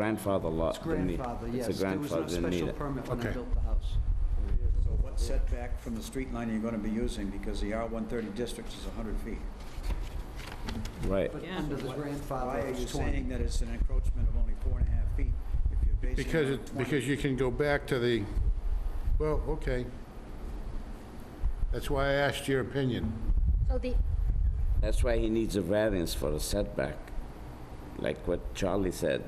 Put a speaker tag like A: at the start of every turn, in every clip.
A: grandfather lot.
B: It's
A: didn't need-
B: grandfather,
A: it's a
B: yes. There was no
A: grandfather, didn't need
B: special
A: it.
B: permit when I
C: Okay.
B: built the house.
D: So what setback from the street line are you gonna be using, because the R-130 district is 100 feet?
A: Right.
B: But under the grandfather,
D: Why are
B: it
D: you
B: was
D: saying
B: 20.
D: that it's an encroachment of only four and a half feet if you're basing it
C: Because,
D: on
C: it
D: 20?
C: because you can go back to the, well, okay. That's why I asked your opinion.
E: So the,
A: That's why he needs a variance for a setback. Like what Charlie said,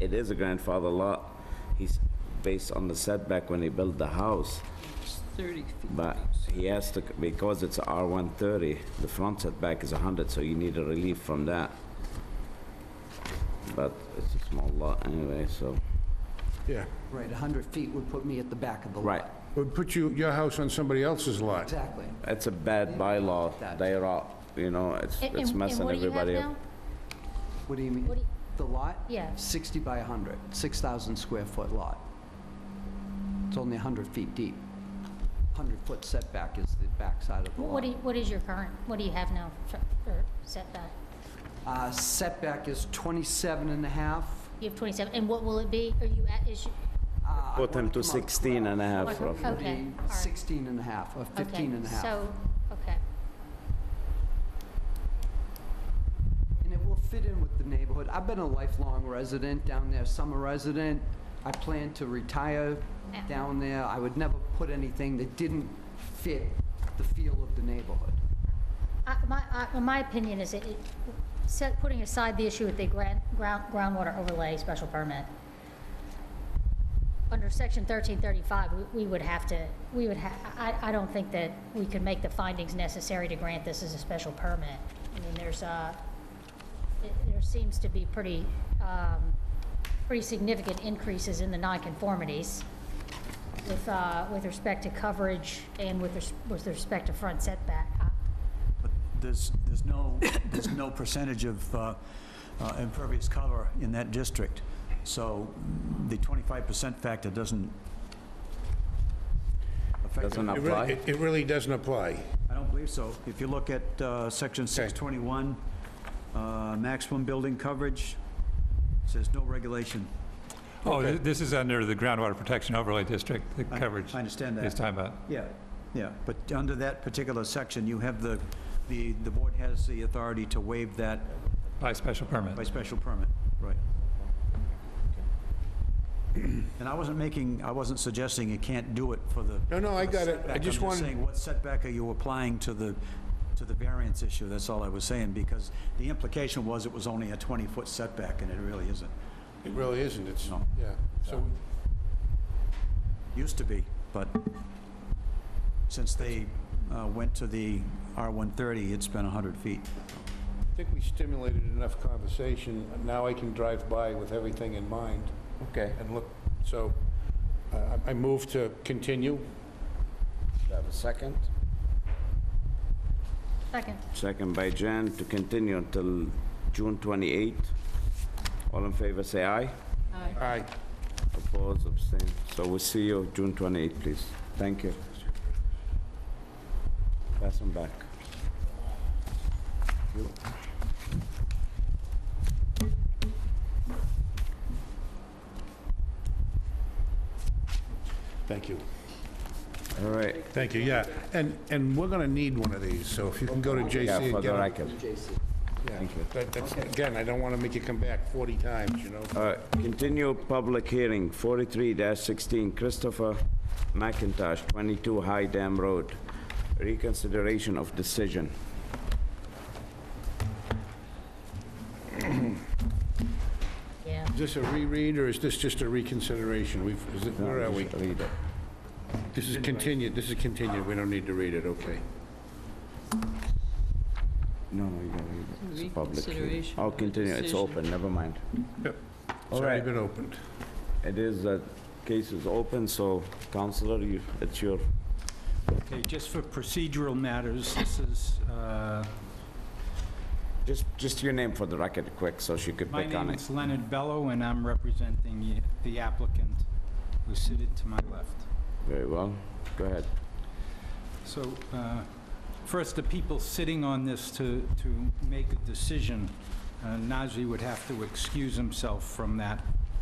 A: it is a grandfather lot. He's based on the setback when he built the house.
F: It's 30 feet.
A: But he has to, because it's R130, the front setback is 100, so you need a relief from that. But it's a small lot anyway, so.
C: Yeah.
B: Right, 100 feet would put me at the back of the lot.
A: Right,
C: Would put you, your house on somebody else's lot.
B: Exactly.
A: it's a bad bylaw, they're up, you know, it's
E: and
A: it's
E: and- and
A: messing
E: what do you have
A: everybody
E: now?
A: up.
B: What do you mean?
E: What do you-
B: The lot?
E: Yeah.
B: 60 by 100, 6,000 square foot lot. It's only 100 feet deep. 100-foot setback is the backside of the lot.
E: What do you- what is your current, what do you have now for- for setback?
B: Uh, Setback is 27 and a half.
E: You have 27, and what will it be? Are you at, is, you-
B: Uh, I
A: Put
B: wanna
A: him to
B: come out
A: 16 and a half
E: Okay.
A: roughly.
E: Okay, all right.
B: 16 and a half, or 15 and a half.
E: Okay, so, okay,
B: And it will fit in with the neighborhood. I've been a lifelong resident down there, summer resident. I plan to retire
E: Yeah.
B: down there. I would never put anything that didn't fit the feel of the neighborhood.
E: I- my, I- my opinion is, it, it- set, putting aside the issue with the gran- ground, groundwater overlay special permit, under section 1335, we- we would have to, we would ha, I, I don't think that we could make the findings necessary to grant this as a special permit. I mean, there's, uh, it- there seems to be pretty, um, pretty significant increases in the nonconformities with, uh, with respect to coverage and with, res- with respect to front setback. Uh,
D: But there's, there's no, there's no percentage of uh, uh, impervious cover in that district, so the 25% factor doesn't affect it.
A: Doesn't
C: It really,
A: apply.
C: it- it really doesn't apply.
D: I don't believe so. If you look at uh, Section 621, uh, maximum building coverage, says no regulation.
G: Oh, thi- this is under the groundwater protection overlay district, the
D: I-
G: coverage.
D: I understand that.
G: He's talking about.
D: Yeah, yeah, but under that particular section, you have the, the, the board has the authority to waive that
G: By special
D: by
G: permit.
D: special permit. Right. And I wasn't making, I wasn't suggesting you can't do it for the.
C: No, no, I
D: for the
C: got it. I
D: setback.
C: just
D: I'm
C: wanted-
D: saying, what setback are you applying to the, to the variance issue? That's all I was saying, because the implication was it was only a 20-foot setback, and it really isn't.
C: It really isn't, it's,
D: No.
C: yeah. So,
D: Used to be, but since they uh, went to the R-130, it's been 100 feet.
C: I think we stimulated enough conversation. Now I can drive by with everything in mind
A: Okay.
C: and look, so uh, I I move to continue.
A: Do I have a second?
E: Second.
A: Second by Jan, to continue until June 28. All in favor, say aye.
C: Aye.
A: Oppose, abstain. So we'll see you June 28, please. Thank you. Pass them back.
C: Thank you.
A: All right.
C: Thank you, yeah. And, and we're gonna need one of these, so if you can go to JC
A: Yeah,
C: and
A: for
C: get
A: the
C: them.
A: record. Thank you.
C: That- that's- Again, I don't wanna make you come back 40 times, you know?
A: All right, continue public hearing, 43-16 Christopher McIntosh, 22 High Dam Road. Reconsideration of decision.
E: Yeah.
C: Is this a reread, or is this just a reconsideration? We've, is it, where are we?
A: Read it.
C: This is continued, this is continued, we don't need to read it, okay.
A: No, no, you don't read it. It's a public hearing.
F: Reconsideration
A: Oh,
F: of
A: continue, it's
F: decision.
A: open, never mind.
C: Yep.
A: All
C: It's already
A: right.
C: been opened.
A: It is, that case is open, so Counselor, you, it's your,
H: Okay, just for procedural matters, this is, uh,
A: just, just your name for the record quick, so she could
H: my
A: pick
H: name
A: on it.
H: is Leonard Bello, and I'm representing the- the applicant who's seated to my left.
A: Very well, go ahead.
H: So, uh, first, the people sitting on this to, to make a decision, uh, Najee would have to excuse himself from that